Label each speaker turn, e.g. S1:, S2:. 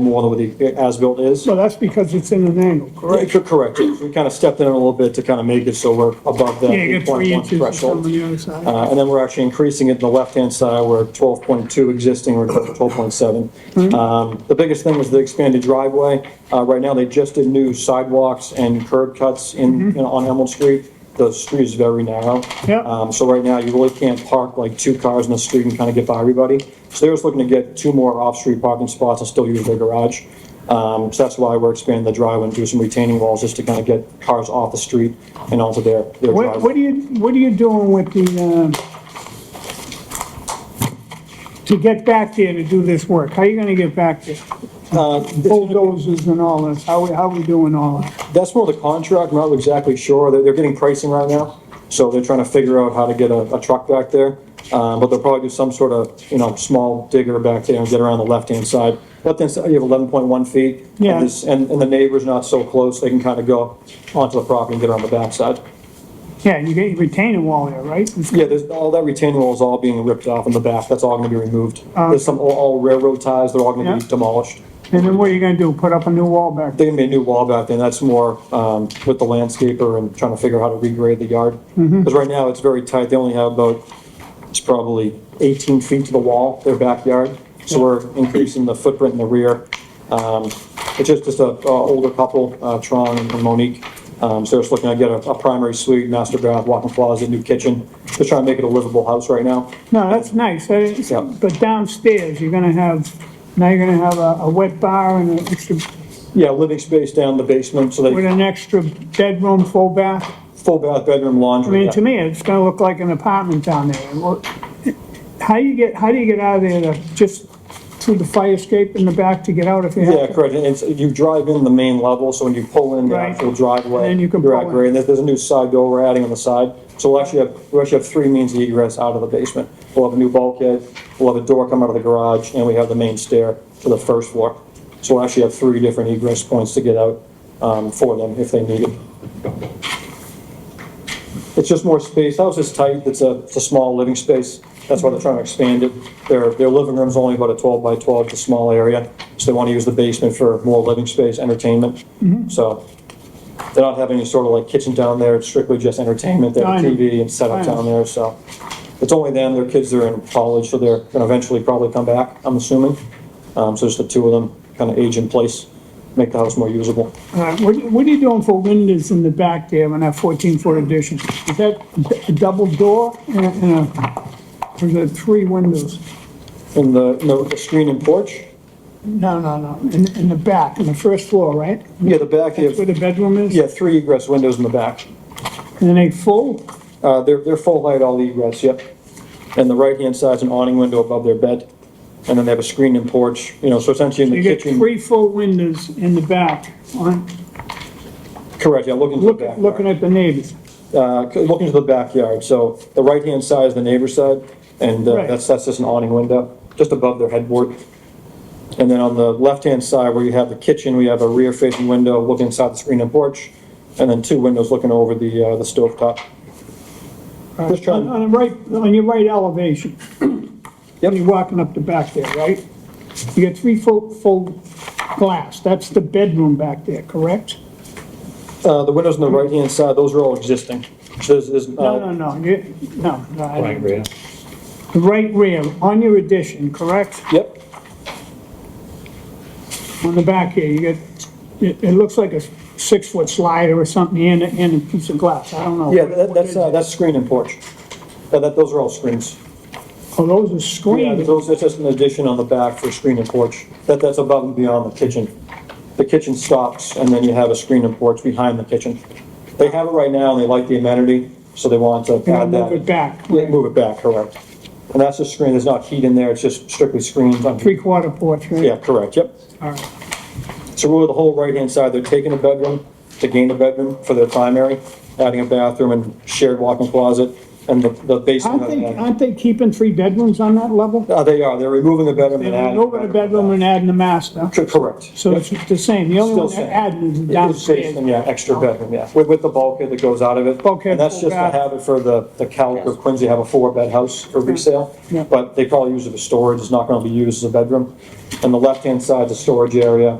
S1: more than what the as-built is.
S2: So that's because it's in an angle, correct?
S1: Correct, correct. We kind of stepped in a little bit to kind of make it so we're above that
S2: Yeah, you
S1: eight
S2: got three
S1: point one
S2: inches or
S1: threshold.
S2: something on the other side.
S1: Uh, and then we're actually increasing it in the left-hand side, we're at twelve point two existing, we're at twelve point seven.
S2: Mm-hmm.
S1: Um, the biggest thing was the expanded driveway. Uh, right now, they just did new sidewalks and curb cuts in, in- on Emerald Street. The street is very narrow.
S2: Mm-hmm. Yeah.
S1: Um, so right now, you really can't park like two cars in the street and kind of get by everybody. So they're just looking to get two more off-street parking spots and still use their garage. Um, so that's why we're expanding the driveway and do some retaining walls just to kind of get cars off the street and onto their, their driveway.
S2: What, what are you, what are you doing with the, um, to get back there to do this work? How are you gonna get back there?
S1: Uh,
S2: Bulldozers and all this, how, we- how we doing all that?
S1: That's more the contract, I'm not exactly sure, they're, they're getting pricing right now, so they're trying to figure out how to get a, a truck back there. Uh, but they'll probably do some sort of, you know, small digger back there and get around the left-hand side. Left-hand side, you have eleven point one feet. and
S2: Yeah.
S1: this- And, and the neighbor's not so close, they can kind of go onto the property and get around the backside.
S2: Yeah, you get your retaining wall there, right?
S1: Yeah, there's, all that retaining wall is all being ripped off in the back, that's all gonna be removed. There's some, all- all railroad ties, they're all gonna be
S2: Uh, Yeah.
S1: demolished.
S2: And then what are you gonna do, put up a new wall back there?
S1: They're gonna be a new wall back there, and that's more, um, with the landscaper and trying to figure out how to regrade the yard. Because right now, it's very tight, they only have about, it's probably eighteen feet to the wall, their backyard. So we're increasing the footprint in the rear. Um, it's just, just a, a older couple, uh, Tron and Monique. Um, so just looking to get a, a primary suite, master bath, walk-in closet, new kitchen. Just trying to make it a livable house right now.
S2: No, that's nice, that is-
S1: Yeah.
S2: but downstairs, you're gonna have, now you're gonna have a, a wet bar and an extra,
S1: Yeah, living space down in the basement, so
S2: with
S1: they,
S2: an extra bedroom, full bath?
S1: full bath, bedroom,
S2: I
S1: laundry.
S2: mean,
S1: yeah.
S2: to me, it's gonna look like an apartment down there. And what- How you get, how do you get out of there, to- just through the fire escape in the back to get out if you
S1: Yeah,
S2: have to?
S1: correct, and it's, you drive in the main level, so when you pull in the
S2: Right.
S1: actual driveway.
S2: And you can
S1: you're
S2: pull
S1: at
S2: in.
S1: grade. And there's, there's a new side door we're adding on the side, so we'll actually have, we actually have three means of egress out of the basement. We'll have a new bulkhead, we'll have a door come out of the garage, and we have the main stair to the first floor. So we'll actually have three different egress points to get out, um, for them if they need it. It's just more space, the house is tight, it's a, it's a small living space, that's why they're trying to expand it. Their, their living room's only about a twelve by twelve, it's a small area, so they wanna use the basement for more living space, entertainment.
S2: Mm-hmm.
S1: So, they're not having any sort of like kitchen down there, it's strictly just entertainment, they have a
S2: I know.
S1: TV and setup
S2: I know.
S1: down there, so. It's only them, their kids are in college, so they're gonna eventually probably come back, I'm assuming. Um, so just the two of them, kinda age in place, make the house more usable.
S2: Uh, What, what are you doing for windows in the back there on that fourteen foot addition? Is that d- a double door and a- and a, or is it three windows?
S1: And the, and the screen and porch,
S2: No, no, no, in, in the back, in the first floor, right?
S1: yeah, the back, you have-
S2: Where the bedroom is?
S1: Yeah, three egress windows in the back.
S2: And they full?
S1: Uh, they're, they're full height, all the egress, yep. And the right-hand side's an awning window above their bed. And then they have a screen and porch, you know, so essentially in
S2: You
S1: the
S2: get
S1: kitchen.
S2: three full windows in the back, on,
S1: Correct, yeah, looking to the
S2: look,
S1: backyard.
S2: looking at the neighbors.
S1: Uh, c- looking to the backyard, so the right-hand side is the neighbor's side, and uh,
S2: Right.
S1: that's, that's just an awning window, just above their headboard. And then on the left-hand side where you have the kitchen, we have a rear-facing window looking inside the screen and porch, and then two windows looking over the, uh, the stovetop. Just
S2: On,
S1: trying,
S2: on the right, on your right elevation. When you're walking up the back there, right? You got three full, full glass, that's the bedroom back there, correct?
S1: Uh, the windows on the right-hand side, those are all existing. So There's, there's,
S2: No, no,
S1: uh,
S2: no, you, no, no. I
S3: Right,
S2: don't-
S3: Rita?
S2: The right rear, on your addition, correct?
S1: yep,
S2: On the back here, you got, it, it looks like a six-foot slider or something, and, a- and a piece of glass, I don't know.
S1: yeah,
S2: What-
S1: that-
S2: what
S1: that's,
S2: is
S1: uh,
S2: it?
S1: that's screen and porch. Uh, That, that, those are all screens.
S2: Oh, those are
S1: Yeah,
S2: screened,
S1: those, that's just an addition on the back for screen and porch. That, that's above and beyond the kitchen. The kitchen stops, and then you have a screen and porch behind the kitchen. They have it right now, and they like the amenity, so they want to
S2: They're
S1: add
S2: gonna
S1: that.
S2: move it back.
S1: Yeah, move it back, correct. And that's a screen, there's not heat in there, it's just strictly screens. on-
S2: three-quarter porch, right?
S1: Yeah, correct, yep.
S2: All right.
S1: So really, the whole right-hand side, they're taking a bedroom to gain a bedroom for their primary, adding a bathroom and shared walk-in closet, and the, the basement.
S2: Aren't
S1: of the-
S2: they, aren't they keeping three bedrooms on that level?
S1: Uh, they are, they're removing the bedroom and
S2: They're
S1: adding.
S2: over the bedroom and adding a master,
S1: Cor- Correct.
S2: so
S1: Yep.
S2: it's the same, the only
S1: Still
S2: one they're
S1: same.
S2: adding is the
S1: It is
S2: downstairs.
S1: basement, yeah, extra bedroom, yeah, with, with the bulkhead that goes out of it.
S2: Bulkhead,
S1: And that's just a
S2: full bath.
S1: habit for the, the Calic of Quincy, have a four-bed house for resale.
S2: Yeah.
S1: But they probably use it for storage, it's not gonna be used as a bedroom. And the left-hand side's a storage area,